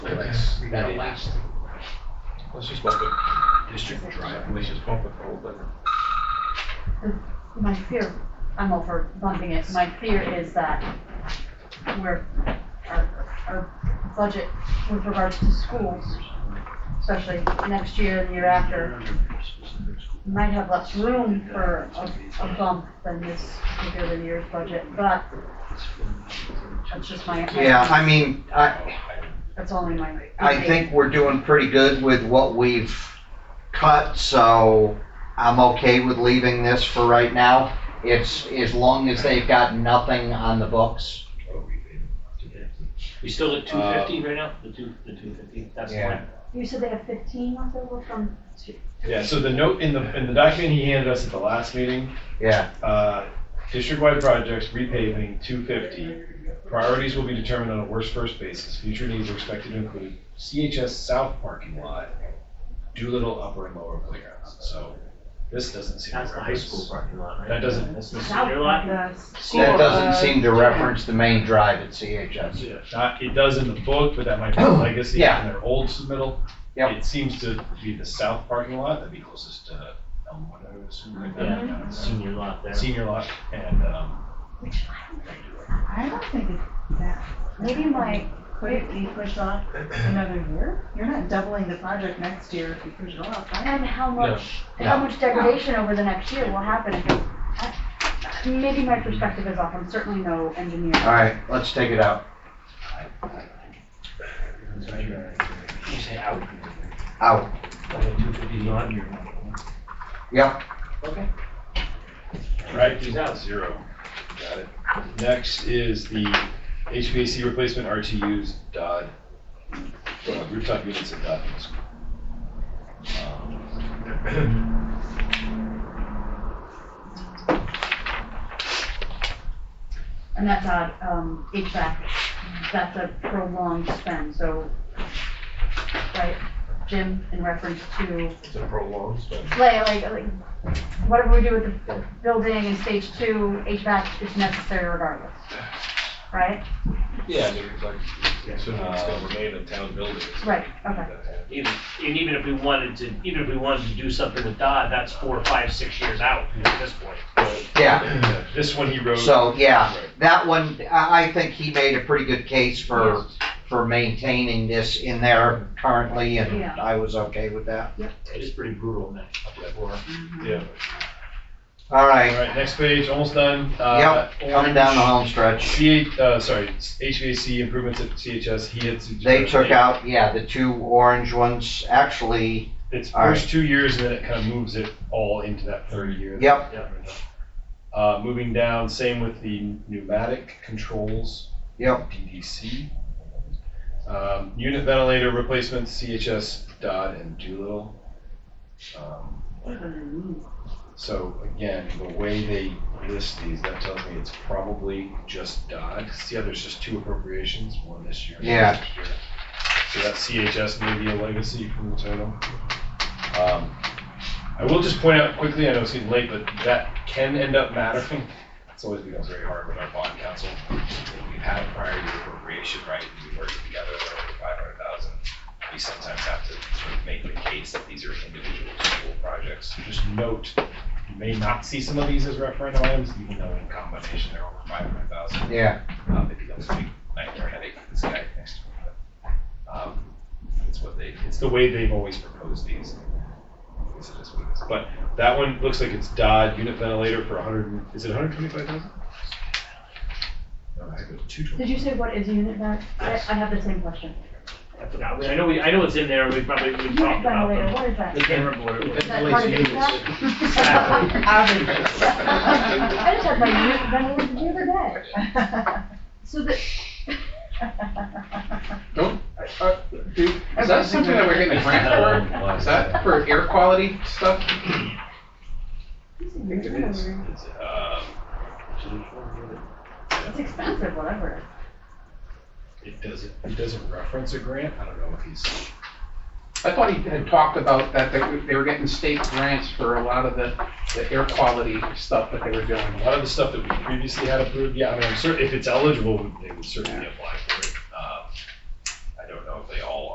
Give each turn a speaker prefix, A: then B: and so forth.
A: That'll last.
B: Let's just bump it.
A: District drive.
B: Let's just bump it for old business.
C: My fear, I'm over bumping it, my fear is that we're, our, our budget with regards to schools, especially next year and the year after, might have less room for a, a bump than this particular year's budget, but that's just my.
D: Yeah, I mean, I,
C: That's only my.
D: I think we're doing pretty good with what we've cut, so I'm okay with leaving this for right now. It's, as long as they've got nothing on the books.
A: We still at two fifty right now, the two, the two fifty, that's the
D: Yeah.
A: one.
C: You said they have fifteen left over from,
B: Yeah, so the note in the, in the document he handed us at the last meeting,
D: Yeah,
B: uh, district-wide projects, repaving, two fifty. Priorities will be determined on a worst first basis. Future needs are expected to include CHS South parking lot, Doolittle upper and lower playgrounds. So this doesn't seem. to
A: That's the high
B: reference-
A: school parking lot, right?
B: That doesn't,
A: That's the senior lot?
D: that doesn't seem to reference the main drive at CHS.
B: not, it does in the book, but that might be a legacy
D: Oh, Yeah.
B: in their old submittal.
D: Yep.
B: It seems to be the south parking lot, that'd be closest to Elmwood, I would assume, right there.
A: Yeah, senior lot there.
B: Senior lot and, um,
C: which I don't think,
E: I don't think it's that.
C: maybe my,
E: Could it be pushed off another year? You're not doubling the project next year if you push it off. I-
C: and how much, how
D: No.
C: much degradation over the next year will happen if, it- I- maybe my perspective is off, I'm certainly no engineer.
D: All right, let's take it out.
A: You say out,
D: Out.
A: like two fifty's on your.
D: Yep,
A: Okay.
B: right,
A: He's out.
B: zero. Got it. Next is the HVAC replacement RTUs Dodd, uh, rooftop units at Dodd. Middle School. Um,
C: And that's on, um, HVAC, that's a prolonged spend, so, right, Jim, in reference to,
B: It's a prolonged spend.
C: like, like, like, whatever we do with the building in stage two, HVAC is necessary regardless, right?
B: Yeah, I mean, it's like,
A: Yeah.
B: so it's gonna remain a town building.
C: Right, okay.
A: Even, and even if we wanted to, even if we wanted to do something with Dodd, that's four, five, six years out at this point.
D: yeah.
B: This one he wrote.
D: So, yeah,
B: Right.
D: that one, I, I think he made a pretty good case for, for maintaining this in there currently, and
C: Yeah.
D: I was okay with that.
A: It is pretty brutal, man.
B: Yeah.
D: All
B: All
D: right,
B: right, next page, almost done. Uh,
D: yep, coming down the home stretch.
B: C, uh, sorry, HVAC improvements at CHS, he had suggested.
D: They took out, yeah, the two orange ones, actually,
B: It's
D: all
B: first two years, and then it kind of moves it all into that third year.
D: yep,
B: Uh, moving down, same with the pneumatic controls.
D: Yep.
B: DDC. Um, unit ventilator replacements, CHS, Dodd, and Doolittle. Um, So again, the way they list these, that tells me it's probably just Dodd, 'cause the other's just two appropriations, one this year. and one
D: Yeah.
B: next year. So that CHS may be a legacy from the title. Um, I will just point out quickly, I know it's getting late, but that can end up mattering. It's always becomes very hard with our bond council. We've had a prior year appropriation, right, we work together, over five hundred thousand. We sometimes have to sort of make the case that these are individual school projects. Just note you may not see some of these as referendum items, even though in combination they're over five hundred thousand.
D: yeah,
B: Um, it becomes a big nightmare headache for this guy next to me, but, um, it's what they, it's the way they've always proposed these. I guess it is what it is. But that one looks like it's Dodd unit ventilator for hundred, and is it hundred twenty-five thousand? No, I go two
C: Did
B: twenty.
C: you say what is unit vent? I, I have the same question.
A: I forgot, We- I know, we. I know it's in there, we probably, we
C: Unit
A: talked about
C: ventilator, what
A: them.
C: is that?
A: I can't remember what it was.
C: Is that part of HVAC?
A: Exactly.
C: I just had my unit ventilator the other day. So the,
F: Uh, do- Is that something that we're getting a grant for? Is that for air quality stuff?
B: I think it is.
C: it's
B: It's, um,
C: expensive, whatever.
B: it doesn't, it doesn't reference a grant, I don't know if he's.
F: I thought he had talked about that, that they were getting state grants for a lot of the, the air quality stuff that they were doing.
B: A lot of the stuff that we previously had approved, yeah, I mean, I'm certain, if it's eligible, they would certainly apply for it. Um,